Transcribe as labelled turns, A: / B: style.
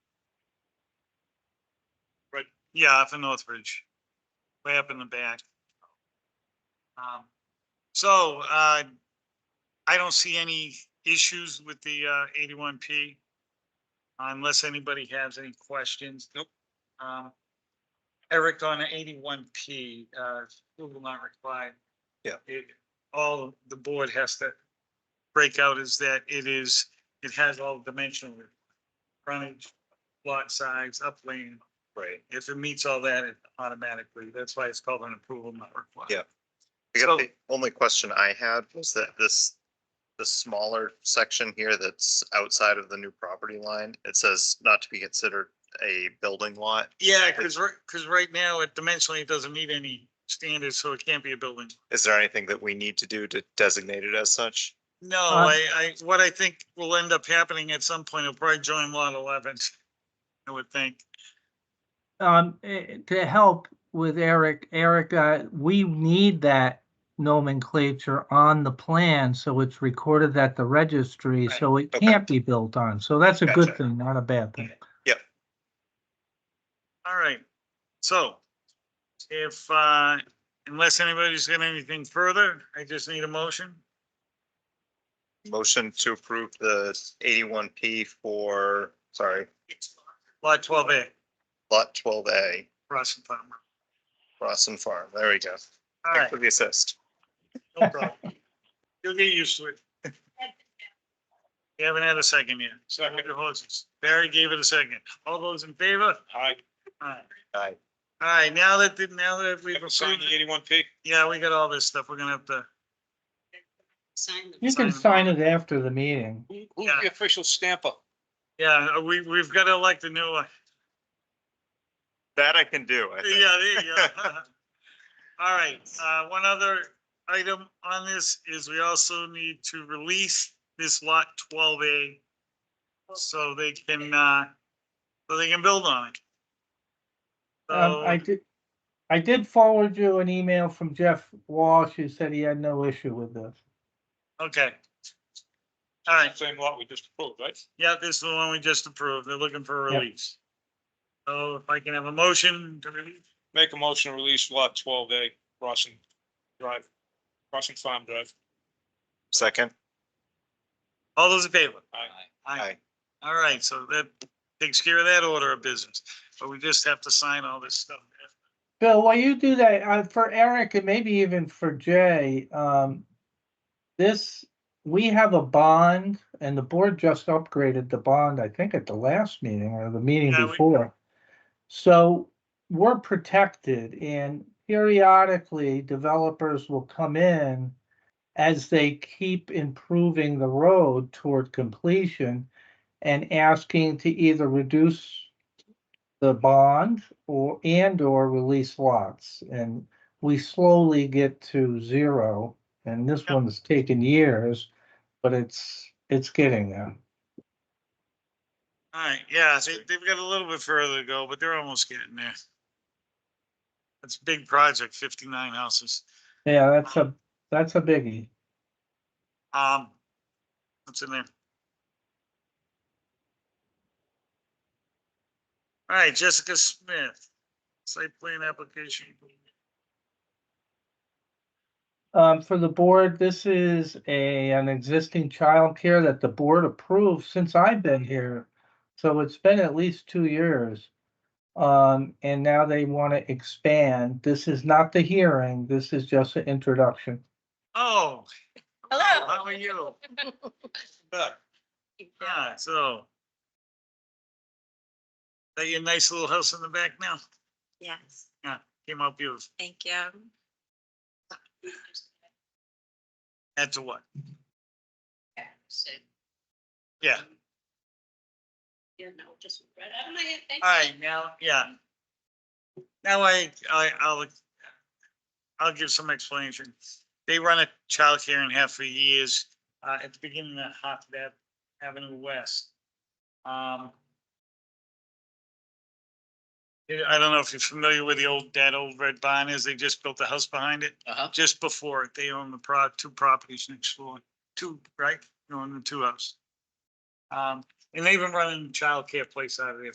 A: Yeah, up in Northbridge, way up in the back. Um, so, uh, I don't see any issues with the, uh, eighty-one P. Unless anybody has any questions. Nope. Um, Eric on eighty-one P, uh, who will not reply.
B: Yeah.
A: It, all the board has to break out is that it is, it has all dimensional frontage, lot size, upland,
B: Right.
A: if it meets all that it automatically, that's why it's called an approval not required.
B: Yeah.
C: I guess
A: So-
C: the only question I had was that this, the smaller section here that's outside of the new property line, it says not to be considered a building lot.
A: Yeah, cause right, cause right now it dimensionally doesn't meet any standards, so it can't be a building.
C: Is there anything that we need to do to designate it as such?
A: No, I, I, what I think will end up happening at some point, it'll probably join lot eleven, I would think.
D: um, eh, to help with Eric, Eric, uh, we need that nomenclature on the plan, so it's recorded at the registry,
A: Right,
D: so it
C: okay.
D: can't be built on. So that's a
C: Gotcha.
D: good thing, not a bad thing.
A: All right, so if, uh, unless anybody's got anything further, I just need a motion.
C: Motion to approve the eighty-one P for, sorry,
A: Lot twelve A,
C: lot twelve A,
A: Ross and Palmer.
C: Rossin Farm. There we go.
A: All
C: Thanks
A: right,
C: for the assist.
A: no problem. You'll get used to it. You haven't had a second yet. Second. Barry gave it a second. All those in favor?
B: Aye.
A: Aye.
C: Aye.
A: All right, now that, the- now that we've
B: Sign
A: approved,
B: the
A: it-
B: eighty-one P.
A: yeah, we got all this stuff. We're gonna have to,
E: Sign
D: You can sign it after the meeting.
B: Who- Who's the official stamper?
A: yeah, we, we've got to elect a new one.
C: That I can do. I think.
A: Yeah, there you go. All right, uh, one other item on this is we also need to release this lot twelve A. So they can, uh, so they can build on it.
C: Oh.
D: Um, I
A: So,
D: did, I did forward you an email from Jeff Walsh, who said he had no issue with this.
A: okay. All right,
B: Same lot we just approved, right?
A: yeah, this is the one we just approved. They're looking for a
D: Yep.
A: release. So if I can have a motion to release,
B: Make a motion to release lot twelve A, Rossin Drive, Rossin Farm Drive.
C: Second.
A: all those in favor?
B: Aye.
C: Aye.
A: All right, so that takes care of that order of business, but we just have to sign all this stuff.
D: Bill, while you do that, uh, for Eric and maybe even for Jay, um, this, we have a bond and the board just upgraded the bond, I think at the last meeting or the meeting
A: Yeah, we-
D: before. So we're protected and periodically developers will come in as they keep improving the road toward completion and asking to either reduce the bond or, and or release lots. And we slowly get to zero, and this
A: Yep.
D: one's taken years, but it's, it's getting there.
A: All right, yeah, they, they've got a little bit further to go, but they're almost getting there. That's a big project, fifty-nine houses.
D: Yeah, that's a, that's a biggie.
A: Um, what's in there? All right, Jessica Smith, site plan application.
D: Um, for the board, this is a, an existing childcare that the board approved since I've been here. So it's been at least two years. Um, and now they want to expand. This is not the hearing, this is just an introduction.
A: Oh,
E: Hello.
A: how are you?
B: Back.
A: Yeah, so. Got your nice little house in the back now?
E: Yes,
A: Came out beautiful.
E: thank you.
A: That's a what? Yeah.
E: You know, just right out of my head. thank you.
A: All right, now, yeah. Now I, I, I'll, I'll give some explanation. They run a childcare in half for years, uh, at the beginning of Hot Dep Avenue West. Um. yeah, I don't know if you're familiar with the old, that old red barn is, they just built the house behind it.
B: Uh-huh.
A: Just before it, they own the pro, two properties next door, two, right? They own the two houses. Um, and they've been running childcare place out of there